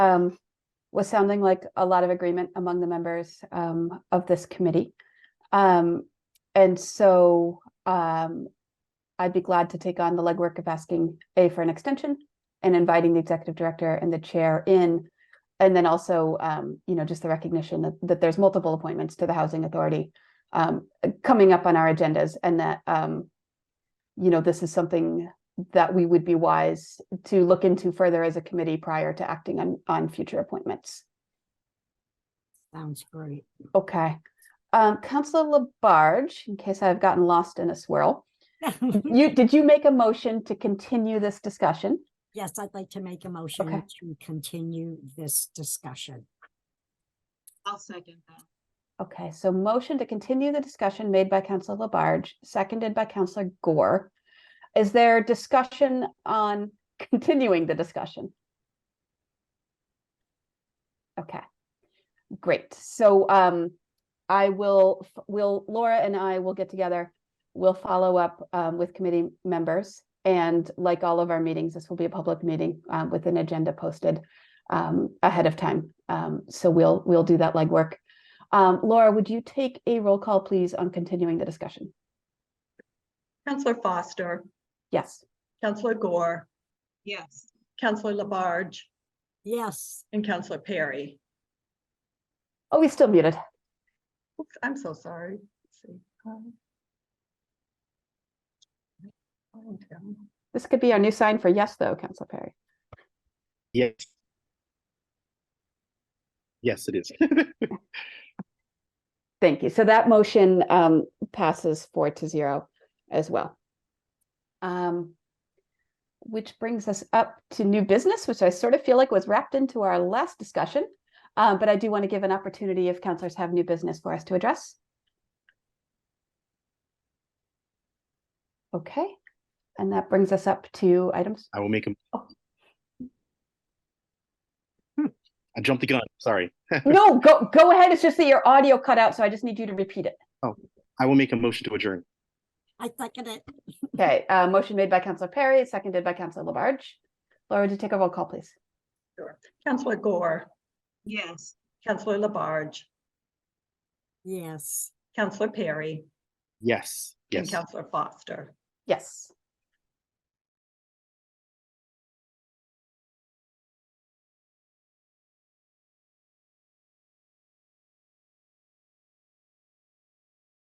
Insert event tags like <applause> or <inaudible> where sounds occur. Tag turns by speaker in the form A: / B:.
A: um, was sounding like a lot of agreement among the members, um, of this committee. Um, and so, um, I'd be glad to take on the legwork of asking A for an extension and inviting the executive director and the chair in. And then also, um, you know, just the recognition that, that there's multiple appointments to the Housing Authority um, coming up on our agendas and that, um, you know, this is something that we would be wise to look into further as a committee prior to acting on, on future appointments.
B: Sounds great.
A: Okay. Um, Counselor Labarge, in case I've gotten lost in a swirl, you, did you make a motion to continue this discussion?
B: Yes, I'd like to make a motion to continue this discussion.
C: I'll second that.
A: Okay, so motion to continue the discussion made by Counselor Labarge, seconded by Counselor Gore. Is there discussion on <laughs> continuing the discussion? Okay, great. So um, I will, f- will, Laura and I will get together. We'll follow up um, with committee members. And like all of our meetings, this will be a public meeting um, with an agenda posted um, ahead of time. Um, so we'll, we'll do that legwork. Um, Laura, would you take a roll call, please, on continuing the discussion?
D: Counselor Foster,
A: Yes.
D: Counselor Gore,
C: Yes.
D: Counselor Labarge,
B: Yes,
D: and Counselor Perry.
A: Oh, he's still muted.
D: Oops, I'm so sorry. Let's see. Um, oh, damn.
A: This could be our new sign for yes, though, Council Perry.
E: Yes. Yes, it is.
A: Thank you. So that motion um, passes four to zero as well. Um, which brings us up to new business, which I sort of feel like was wrapped into our last discussion. Um, but I do want to give an opportunity if counselors have new business for us to address. Okay, and that brings us up to items.
E: I will make him.
A: Oh.
E: Hmm, I jumped the gun, sorry.
A: No, go go ahead. It's just that your audio cut out, so I just need you to repeat it.
E: I will make a motion to adjourn.
B: I second it.
A: Okay, uh, motion made by Counselor Perry, seconded by Counselor Labarge. Laura, do you take a roll call, please?
D: Counselor Gore,
C: Yes.
D: Counselor Labarge,
B: Yes.
D: Counselor Perry,
E: Yes,
D: and
E: yes.
D: Counselor Foster.
A: Yes.